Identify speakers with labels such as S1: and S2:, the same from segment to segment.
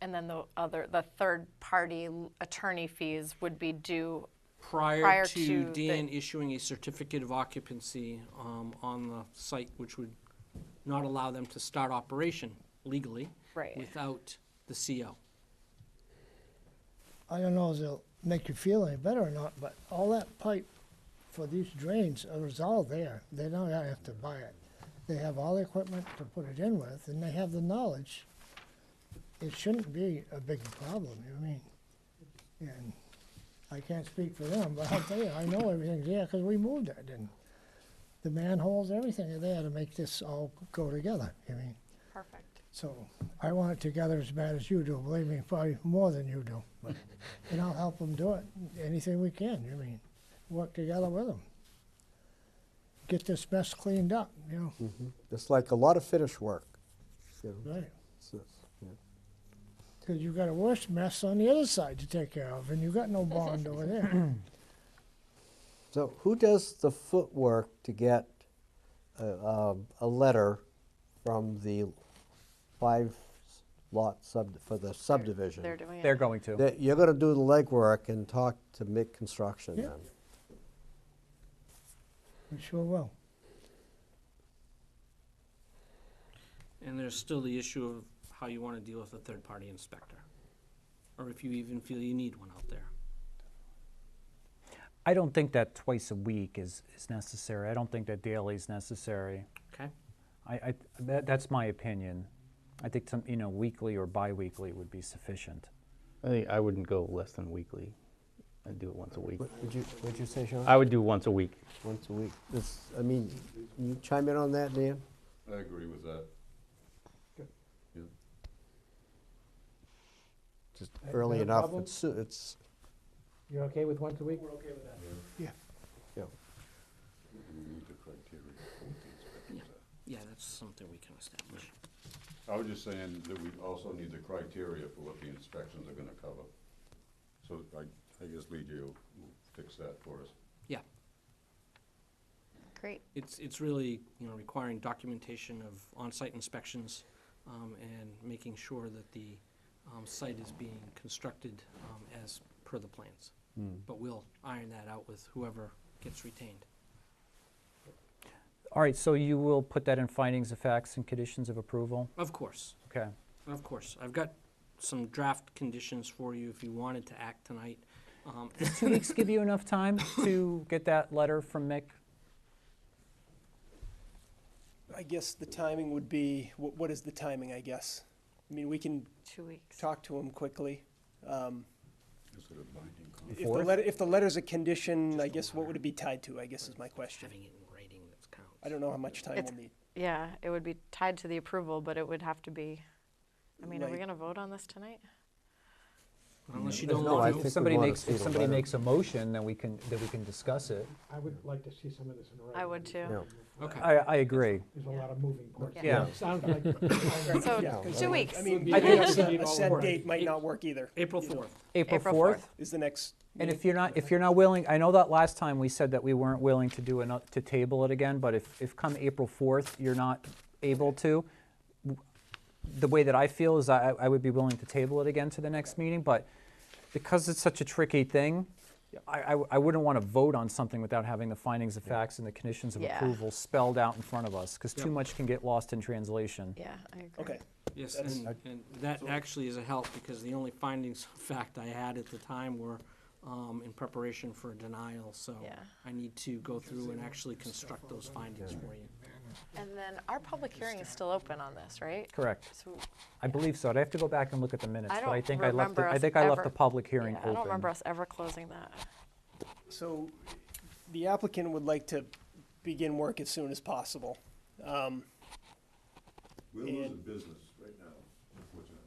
S1: and then the other, the third-party attorney fees would be due,
S2: prior
S1: prior
S2: to
S1: to the-
S2: Dan issuing a certificate of occupancy um, on the site, which would not allow them to start operation legally
S1: Right.
S2: without the CO.
S3: I don't know if it'll make you feel any better or not, but all that pipe for these drains is all there. They don't have to buy it. They have all the equipment to put it in with, and they have the knowledge. It shouldn't be a big problem, I mean, and I can't speak for them, but I'll tell you, I know everything's there, because we moved it, and the manholes, everything are there to make this all go together, I mean,
S1: perfect.
S3: so I want it together as bad as you do, believe me, probably more than you do. But- And I'll help them do it, anything we can, I mean, work together with them. Get this mess cleaned up, you know,
S4: It's like a lot of finish work. you know,
S3: right?
S4: it's- it's- yeah.
S3: Because you've got a worse mess on the other side to take care of, and you've got no bond over there.
S4: So who does the footwork to get a, um, a letter from the five lot sub, for the subdivision?
S1: They're doing it.
S5: They're going to.
S4: That You're gonna do the legwork and talk to Mick Construction
S3: Yeah.
S4: then?
S3: We sure will.
S2: And there's still the issue of how you want to deal with a third-party inspector, or if you even feel you need one out there.
S5: I don't think that twice a week is, is necessary. I don't think that daily is necessary.
S2: Okay?
S5: I, I that, that's my opinion. I think some, you know, weekly or bi-weekly would be sufficient.
S6: I think I wouldn't go less than weekly. I'd do it once a week.
S4: What- Would you, would you say, Sean?
S6: I would do once a week.
S4: Once a week. This, I mean, you chime in on that, Dan?
S7: I agree with that. Yeah.
S4: Just early
S8: a
S4: enough,
S8: problem?
S4: it's, it's,
S8: You're okay with once a week?
S4: you know,
S7: We meet the criteria for what the inspectors are.
S2: Yeah, that's something we can establish.
S7: I was just saying that we also need the criteria for what the inspections are gonna cover. So I, I guess BJ will will fix that for us.
S2: Yeah.
S1: Great.
S2: It's, it's really, you know, requiring documentation of on-site inspections um, and making sure that the um, site is being constructed um, as per the plans. But we'll iron that out with whoever gets retained.
S5: All right, so you will put that in findings of facts and conditions of approval?
S2: Of course,
S5: Okay.
S2: of course. I've got some draft conditions for you if you wanted to act tonight. Um,
S5: Two weeks give you enough time to get that letter from Mick?
S9: I guess the timing would be, what, what is the timing, I guess? I mean, we can
S1: Two weeks.
S9: talk to him quickly. Um,
S7: Is it a binding
S9: If
S7: contract?
S9: the letter, if the letter's a condition, I guess what would it be tied to, I guess is my question.
S2: Having it in writing that counts.
S9: I don't know how much time
S1: It's-
S9: we'll need.
S1: Yeah, it would be tied to the approval, but it would have to be, I mean, are we
S9: Like-
S1: gonna vote on this tonight?
S2: Unless you
S4: There's
S2: don't
S4: no, I
S2: want
S4: think
S5: If
S4: we
S2: to.
S5: somebody
S4: wanna
S5: makes,
S4: see
S5: if
S4: the
S5: somebody
S4: letter.
S5: makes a motion, then we can, then we can discuss it.
S8: I would like to see some of this in writing.
S1: I would too.
S4: Yeah.
S2: Okay.
S5: I, I agree.
S8: There's a lot of moving parts.
S5: Yeah.
S8: It Sounds like.
S1: So,
S9: Yeah,
S1: two weeks.
S9: I mean,
S8: I think
S9: a
S8: it's-
S9: set- a set
S8: Right.
S9: date might not work either.
S2: April
S9: you know,
S2: 4th.
S5: April
S1: April
S5: 4th?
S1: fourth.
S9: Is the next.
S5: And
S9: meeting.
S5: if you're not, if you're not willing, I know that last time we said that we weren't willing to do, ano- to table it again, but if, if come April 4th, you're not able to, w- the way that I feel is I, I would be willing to table it again to the next meeting, but because it's such a tricky thing, I, I w- I wouldn't want to vote on something without having the findings of facts and the conditions of
S1: Yeah.
S5: approval spelled out in front of us, because too
S2: Yep.
S5: much can get lost in translation.
S1: Yeah, I agree.
S9: Okay,
S2: Yes,
S9: That's-
S2: and, and that actually is a help, because the only findings of fact I had at the time were um, in preparation for a denial, so
S1: Yeah.
S2: I need to go through and actually construct those findings for you.
S1: And then our public hearing is still open on this, right?
S5: Correct.
S1: So
S5: I believe so. I'd have to go back and look at the minutes,
S1: I
S5: but I
S1: don't
S5: think I left, the-
S1: remember
S5: I
S1: us
S5: think I left
S1: ever-
S5: the public
S1: yeah,
S5: hearing open.
S1: I don't remember us ever closing that.
S9: so the applicant would like to begin work as soon as possible. Um,
S7: We're losing business right now, unfortunately.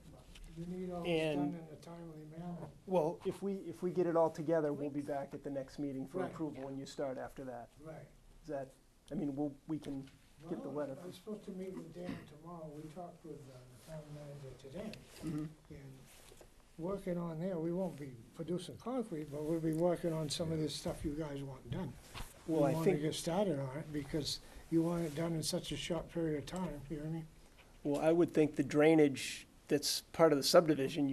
S3: You need all
S9: this done And-
S3: a timely manner.
S9: Well, if we, if we get it all together, we'll be back at the next meeting for
S3: Right.
S9: approval when you start after that.
S3: Right.
S9: Is that, I mean, we'll, we can get the
S3: Well,
S9: letter.
S3: I was supposed to meet with Dan tomorrow, we talked with uh, the town manager today.
S9: Mm-hmm.
S3: And working on there, we won't be producing concrete, but we'll be working on some of this stuff you guys want done. We
S9: Well, I
S3: wanna
S9: think-
S3: get started on it, because you want it done in such a short period of time, you know what I mean?
S9: Well, I would think the drainage that's part of the subdivision,